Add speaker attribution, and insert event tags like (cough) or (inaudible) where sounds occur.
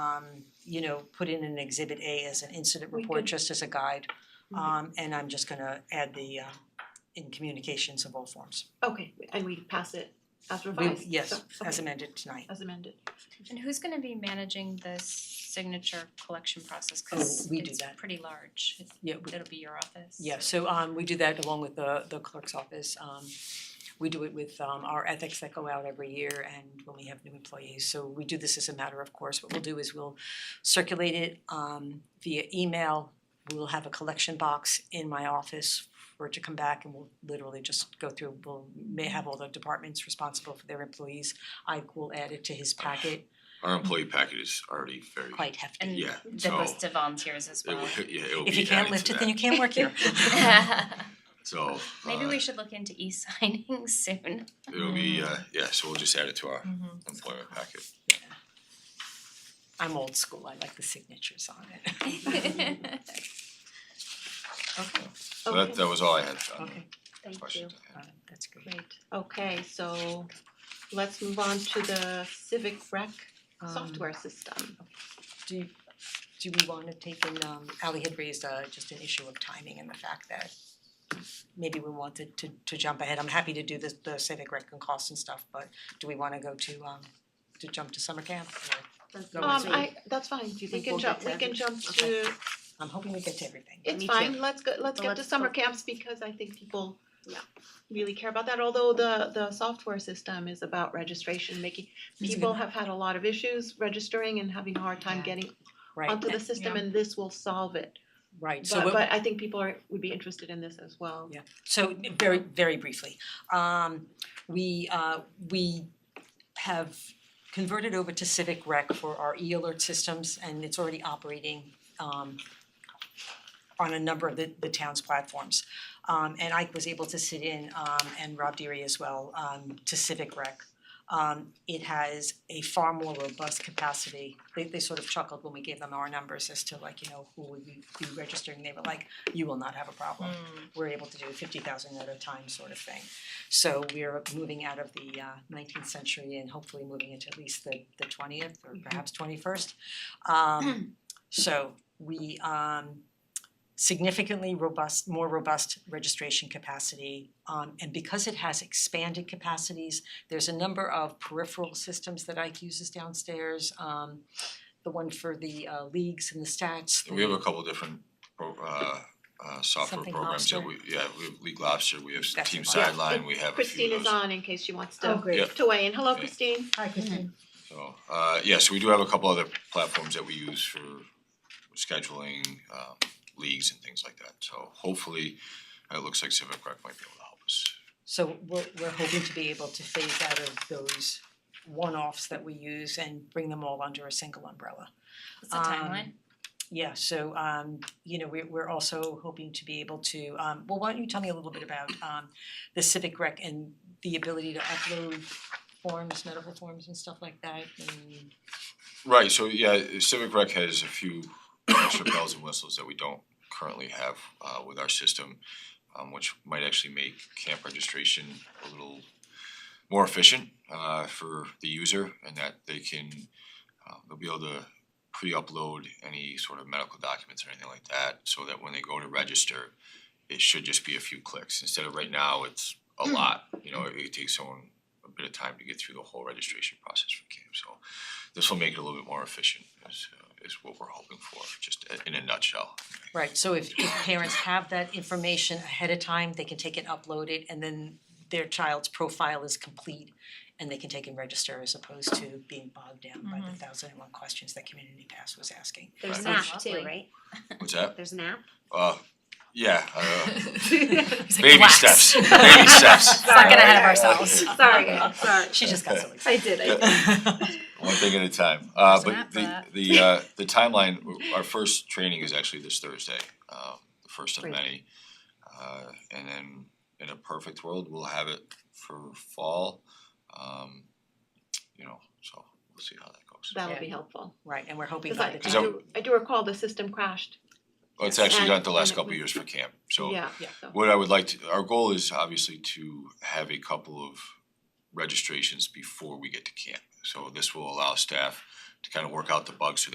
Speaker 1: um, you know, put in an exhibit A as an incident
Speaker 2: We
Speaker 1: report,
Speaker 2: could-
Speaker 1: just as a guide.
Speaker 2: Mhm.
Speaker 1: Um, and I'm just gonna add the, uh, in communications of all forms.
Speaker 2: Okay, and we pass it as
Speaker 1: We-
Speaker 2: revised? so-
Speaker 1: Yes,
Speaker 2: okay,
Speaker 1: as amended tonight.
Speaker 2: As amended.
Speaker 3: And who's gonna be managing this signature collection process? Cause
Speaker 1: Oh, we do
Speaker 3: it's
Speaker 1: that.
Speaker 3: pretty large. It-
Speaker 1: Yeah, we-
Speaker 3: It'll be your office.
Speaker 1: Yeah, so um we do that along with the the clerk's office. Um we do it with um our ethics that go out every year and when we have new employees. So we do this as a matter of course. What we'll do is we'll circulate it um via email. We'll have a collection box in my office for it to come back and we'll literally just go through, we'll may have all the departments responsible for their employees. I will add it to his packet,
Speaker 4: Our employee package is already very,
Speaker 1: quite hefty.
Speaker 3: And
Speaker 4: yeah,
Speaker 3: the
Speaker 4: so
Speaker 3: list of volunteers as
Speaker 4: it (laughs)
Speaker 3: well. (laughs)
Speaker 4: will, yeah, it will
Speaker 1: If you
Speaker 4: be
Speaker 1: can't
Speaker 4: added
Speaker 1: lift
Speaker 4: to
Speaker 1: it, then you
Speaker 4: that,
Speaker 1: can't work
Speaker 4: (laughs)
Speaker 1: here.
Speaker 4: so
Speaker 3: Maybe
Speaker 4: uh,
Speaker 3: we should look into e-signing (laughs) soon.
Speaker 4: it'll be, uh, yeah, so we'll just add it to our
Speaker 1: Mm.
Speaker 4: employment packet.
Speaker 1: I'm old school, I like the signatures on
Speaker 2: (laughs)
Speaker 1: it.
Speaker 3: Thank
Speaker 1: Okay,
Speaker 4: So that, that was all I had on
Speaker 1: okay,
Speaker 4: the
Speaker 3: you.
Speaker 4: questions I had.
Speaker 1: uh, that's great.
Speaker 2: Great, okay, so let's move on to the civic rec
Speaker 1: Um,
Speaker 2: software system.
Speaker 1: Do, do we wanna take in, um, Ally had raised, uh, just an issue of timing and the fact that maybe we wanted to, to jump ahead, I'm happy to do the, the civic rec and costs and stuff, but do we wanna go to, um, to jump to summer camp? Or- No,
Speaker 2: Um,
Speaker 1: it's-
Speaker 2: I, that's fine, we
Speaker 5: think
Speaker 2: can
Speaker 5: we'll
Speaker 2: jump,
Speaker 5: get
Speaker 2: we
Speaker 5: to
Speaker 2: can jump
Speaker 1: Okay.
Speaker 2: to,
Speaker 1: I'm hoping we get to everything.
Speaker 2: it's
Speaker 5: Me
Speaker 2: fine, let's go, let's
Speaker 5: But
Speaker 2: get to
Speaker 5: let's
Speaker 2: summer
Speaker 5: go-
Speaker 2: camps because I think people
Speaker 5: Yeah.
Speaker 2: really care about that, although the the software system is about registration, making,
Speaker 1: It's a
Speaker 2: people
Speaker 1: good-
Speaker 2: have had a lot of issues registering and having a hard time
Speaker 1: Yeah.
Speaker 2: getting
Speaker 1: Right,
Speaker 2: onto the system and this will solve it.
Speaker 1: right, so
Speaker 2: But
Speaker 1: what-
Speaker 2: but I think people are would be interested in this as well.
Speaker 1: Yeah. So very, very briefly, um we uh we have converted over to Civic Rec for our e-alert systems and it's already operating um on a number of the the town's platforms. Um and Ike was able to sit in um and Rob Deary as well um to Civic Rec. Um it has a far more robust capacity. They they sort of chuckled when we gave them our numbers as to like, you know, who would be be registering. They were like, you will not have a problem we're able to do fifty thousand at a time sort of thing. So we're moving out of the uh, nineteenth century and hopefully moving into at least the the twentieth or perhaps twenty first. Um so we um significantly robust, more robust registration capacity. Um and because it has expanded capacities, there's a number of peripheral systems that Ike uses downstairs. Um the one for the uh leagues and the stats.
Speaker 4: We have a couple different pro, uh, uh, software
Speaker 1: Something
Speaker 4: programs that
Speaker 1: Lobster.
Speaker 4: we, yeah, we have League Lobster, we have
Speaker 1: That's
Speaker 4: Team
Speaker 1: the one.
Speaker 4: Sideline, we have a
Speaker 2: Christine
Speaker 4: few of
Speaker 2: is
Speaker 4: those.
Speaker 2: on in case she wants
Speaker 5: Oh,
Speaker 2: to
Speaker 5: great.
Speaker 4: Yep.
Speaker 2: to weigh in. Hello,
Speaker 4: Okay.
Speaker 2: Christine.
Speaker 1: (laughs) Hi, Christine.
Speaker 4: So, uh, yeah, so we do have a couple other platforms that we use for scheduling, um, leagues and things like that. So hopefully, it looks like Civic Rec might be able to help us.
Speaker 1: So we're we're hoping to be able to phase out of those one-offs that we use and bring them all under a single umbrella.
Speaker 3: What's the
Speaker 1: Um,
Speaker 3: timeline?
Speaker 1: Yeah, so um you know, we're we're also hoping to be able to um well, why don't you tell me a little bit about um the civic rec and the ability to upload forms, medical forms and stuff like that and
Speaker 4: Right, so yeah, Civic Rec has a few extra bells and whistles that we don't currently have uh with our system, um which might actually make camp registration a little more efficient uh for the user and that they can uh they'll be able to pre-upload any sort of medical documents or anything like that, so that when they go to register, it should just be a few clicks, instead of right now, it's a lot, you know, it it takes someone a bit of time to get through the whole registration process for camp, so this will make it a little bit more efficient is uh, is what we're hoping for, just i- in a nutshell.
Speaker 1: Right, so if if parents have that information ahead of time, they can take it, upload it, and then their child's profile is complete and they can take and register as opposed to being bogged down by
Speaker 5: Mm-hmm.
Speaker 1: the thousand and one questions that Community Pass was asking.
Speaker 5: (laughs) There's an
Speaker 3: Right.
Speaker 5: app
Speaker 3: Lovely.
Speaker 5: too, right?
Speaker 4: What's that?
Speaker 5: There's an app?
Speaker 4: Uh, yeah,
Speaker 3: (laughs)
Speaker 4: uh,
Speaker 3: It's like
Speaker 4: baby
Speaker 3: wax. (laughs)
Speaker 4: steps, baby steps.
Speaker 3: We're getting ahead of
Speaker 4: Yeah.
Speaker 3: ourselves.
Speaker 4: (laughs)
Speaker 5: Sorry, I'm sorry.
Speaker 1: She just got so
Speaker 5: I did, I did.
Speaker 1: excited.
Speaker 4: One thing at a time. Uh,
Speaker 3: There's an
Speaker 4: but
Speaker 3: app for
Speaker 4: the
Speaker 3: that.
Speaker 4: the uh, the timeline. Our first training is actually this Thursday, um, the first of
Speaker 2: Great.
Speaker 4: many. Uh, and then in a perfect world, we'll have it for fall. Um, you know, so we'll see how that goes.
Speaker 2: That'll be
Speaker 1: Yeah.
Speaker 2: helpful.
Speaker 1: (laughs) Right, and we're hoping
Speaker 2: Because
Speaker 1: by
Speaker 2: I I
Speaker 1: the
Speaker 4: Is that-
Speaker 1: time,
Speaker 2: do I do recall the system crashed.
Speaker 4: Well, it's actually
Speaker 2: And-
Speaker 4: not the last
Speaker 2: and-
Speaker 4: couple of years for camp. So
Speaker 2: Yeah,
Speaker 1: yeah.
Speaker 2: so
Speaker 4: What I would like to, our goal is obviously to have a couple of registrations before we get to camp. So this will allow staff to kind of work out the bugs so